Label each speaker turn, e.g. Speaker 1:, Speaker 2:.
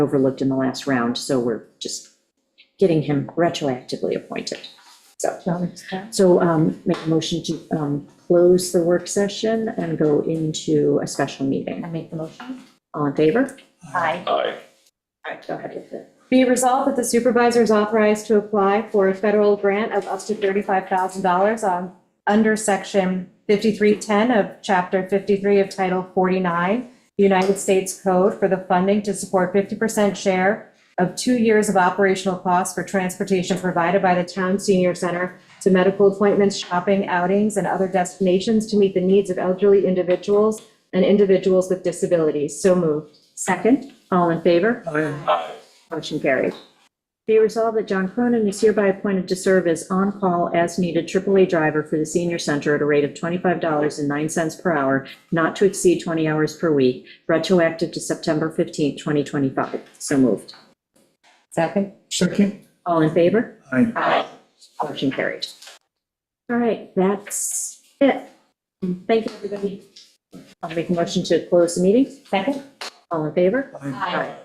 Speaker 1: overlooked in the last round, so we're just getting him retroactively appointed. So, so um, make a motion to um, close the work session and go into a special meeting.
Speaker 2: I make the motion.
Speaker 1: All in favor?
Speaker 2: Aye.
Speaker 3: Aye.
Speaker 1: All right, go ahead with it.
Speaker 2: Be it resolved that the supervisor is authorized to apply for a federal grant of up to $35,000 on, under section 5310 of chapter 53 of title 49, the United States Code for the funding to support 50% share of two years of operational costs for transportation provided by the town senior center to medical appointments, shopping, outings, and other destinations to meet the needs of elderly individuals and individuals with disabilities. So moved.
Speaker 1: Second, all in favor?
Speaker 3: Aye.
Speaker 1: Motion carried. Be resolved that John Cronin is hereby appointed to serve as on-call as-needed AAA driver for the senior center at a rate of $25.09 per hour, not to exceed 20 hours per week, retroactive to September 15th, 2025. So moved.
Speaker 2: Second.
Speaker 4: Second?
Speaker 1: All in favor?
Speaker 4: Aye.
Speaker 1: Aye. Motion carried. All right, that's it. Thank you, everybody. I'll make a motion to close the meeting.
Speaker 2: Second.
Speaker 1: All in favor?
Speaker 4: Aye.
Speaker 1: Aye.